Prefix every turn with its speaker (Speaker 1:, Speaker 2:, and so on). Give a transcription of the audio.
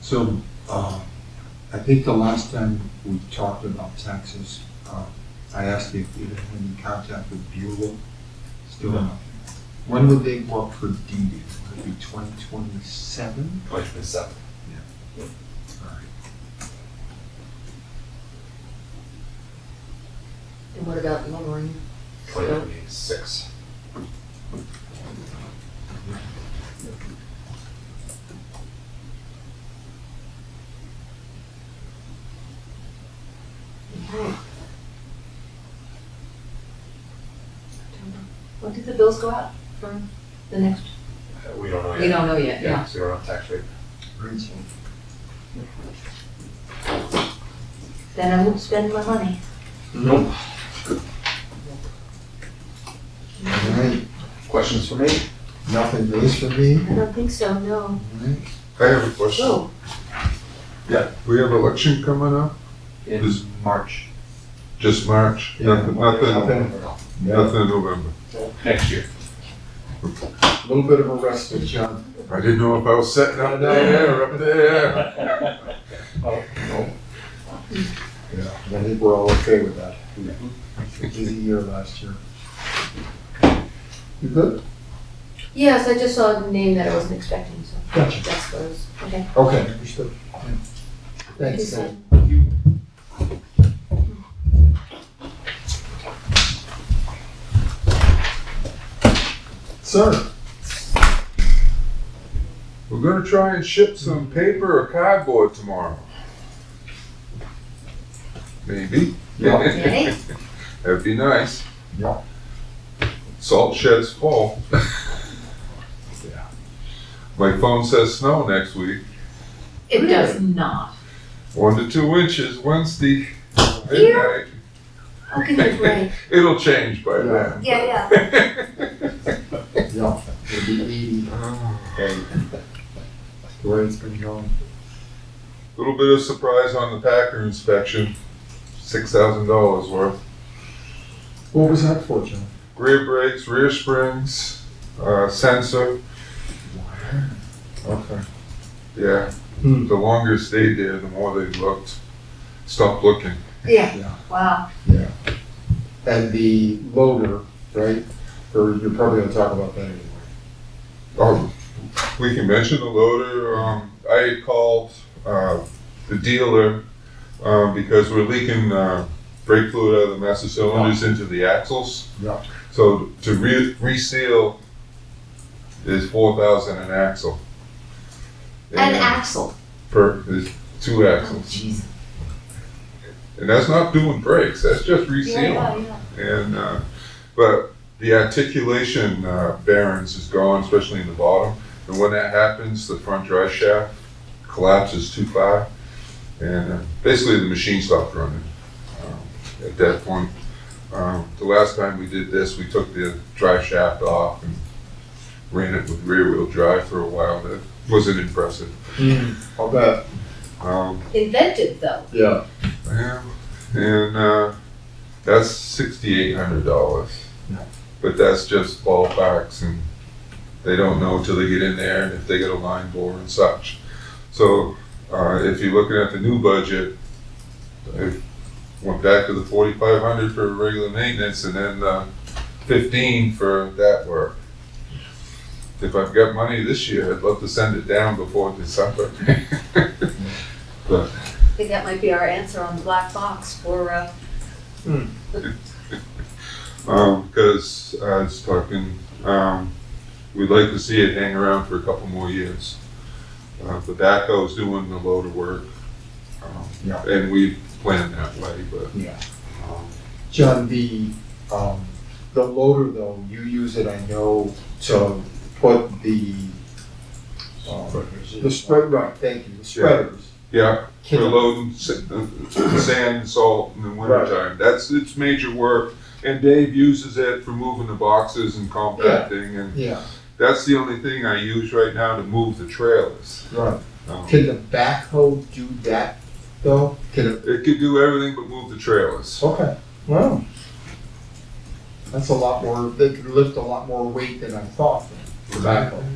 Speaker 1: So, uh, I think the last time we talked about taxes, uh, I asked you if you had any contact with Buell. Still
Speaker 2: No.
Speaker 1: not. When would they work for DD? Would it be twenty twenty-seven?
Speaker 2: Twenty twenty-seven.
Speaker 3: And what about lowering?
Speaker 2: Twenty twenty-six.
Speaker 3: When did the bills go out for the next?
Speaker 2: Uh, We don't know yet.
Speaker 3: We don't know yet, yeah.
Speaker 2: So we don't have tax rate.
Speaker 1: Right.
Speaker 3: Then I won't spend my money.
Speaker 2: Nope.
Speaker 1: All right,
Speaker 2: Questions for me?
Speaker 1: nothing raised for me,
Speaker 3: I don't think so, no.
Speaker 1: all right?
Speaker 4: I have a
Speaker 1: Oh.
Speaker 4: question.
Speaker 3: Whoa,
Speaker 4: Yeah. We have election coming up,
Speaker 2: In
Speaker 4: Is-
Speaker 2: March.
Speaker 4: just March,
Speaker 1: Yeah.
Speaker 4: nothing, nothing,
Speaker 2: Nothing.
Speaker 4: nothing in November.
Speaker 2: Next year.
Speaker 1: A little bit of a rest with John.
Speaker 4: I didn't know if I was sitting up there, or up there.
Speaker 1: Yeah. I think we're all okay with that. Busy year last year. You good?
Speaker 3: yes, I just saw a name that I wasn't expecting, so
Speaker 1: Gotcha.
Speaker 3: that's what I was, okay.
Speaker 1: Okay, understood. Thanks, Ed. Sir,
Speaker 4: We're gonna try and ship
Speaker 1: Mm-hmm.
Speaker 4: some paper or cardboard tomorrow. Maybe.
Speaker 1: Yeah.
Speaker 3: Yay.
Speaker 4: That'd be nice.
Speaker 1: Yeah.
Speaker 4: Salt shed's full.
Speaker 1: Yeah.
Speaker 4: My phone says snow next week,
Speaker 3: It does not.
Speaker 4: one to two inches Wednesday,
Speaker 3: Here?
Speaker 4: midnight.
Speaker 3: I'll give you a break.
Speaker 4: It'll change by
Speaker 1: Yeah.
Speaker 4: then.
Speaker 3: Yeah,
Speaker 1: yeah, it'll be eighty. Hey. The way it's been going.
Speaker 4: Little bit of surprise on the Packer inspection, six thousand dollars worth.
Speaker 1: What was that for, John?
Speaker 4: Rear brakes, rear springs, uh, sensor.
Speaker 1: Okay.
Speaker 4: Yeah,
Speaker 1: Hmm.
Speaker 4: the longer it stayed there, the more they looked. Stopped looking.
Speaker 3: yeah.
Speaker 1: Yeah.
Speaker 3: Yeah, wow.
Speaker 1: And the loader, right? Or you're probably gonna talk about that anyway.
Speaker 4: Um, we can mention the loader. Um, I had called uh, the dealer um, because we're leaking uh, brake fluid out of the master cylinders into the axles.
Speaker 1: Yeah.
Speaker 4: So to re- reseal is four thousand an axle.
Speaker 3: And Axel.
Speaker 4: per is two
Speaker 3: Oh,
Speaker 4: axles,
Speaker 3: jeez.
Speaker 4: and that's not doing brakes. That's just
Speaker 3: Yeah,
Speaker 4: resealing.
Speaker 3: yeah, yeah.
Speaker 4: And uh, but the articulation uh, bearings is gone, especially in the bottom. And when that happens, the front drive shaft collapses too far, and uh, basically the machine stopped running um, at that point. Um, the last time we did this, we took the drive shaft off and ran it with rear wheel drive for a while. That wasn't impressive.
Speaker 1: I'll bet.
Speaker 4: Um,
Speaker 3: Invented though.
Speaker 1: Yeah.
Speaker 4: Yeah, and uh, that's sixty-eight hundred dollars.
Speaker 1: Yeah.
Speaker 4: But that's just ballparks, and they don't know till they get in there, and if they get a line bore and such. So uh, if you're looking at the new budget, I went back to the forty-five hundred for regular maintenance, and then uh, fifteen for that work. If I've got money this year, I'd love to send it down before December.
Speaker 3: I think that might be our answer on the black box for, uh,
Speaker 4: Um, because I was talking, um, we'd like to see it hang around for a couple more years. Uh, the backhoe's doing a load of work. um,
Speaker 1: Yeah.
Speaker 4: And we planned that way, but,
Speaker 1: Yeah.
Speaker 4: um,
Speaker 1: John, the, um, the loader though, you use it, I know, to put the, um, the spread, right, thank you, the spreaders.
Speaker 4: yeah,
Speaker 1: Can-
Speaker 4: we're loading sa- uh, sand and salt in the wintertime. That's, it's major work. And Dave uses it for moving the boxes and compacting, and
Speaker 1: Yeah,
Speaker 4: that's the only thing I use right now to move the trailers.
Speaker 1: right.
Speaker 4: Um,
Speaker 1: Can the backhoe do that though? Can it?
Speaker 4: It could do everything but move the trailers.
Speaker 1: Okay, wow. That's a lot more, they could lift a lot more weight than I thought, Oh, the backhoe.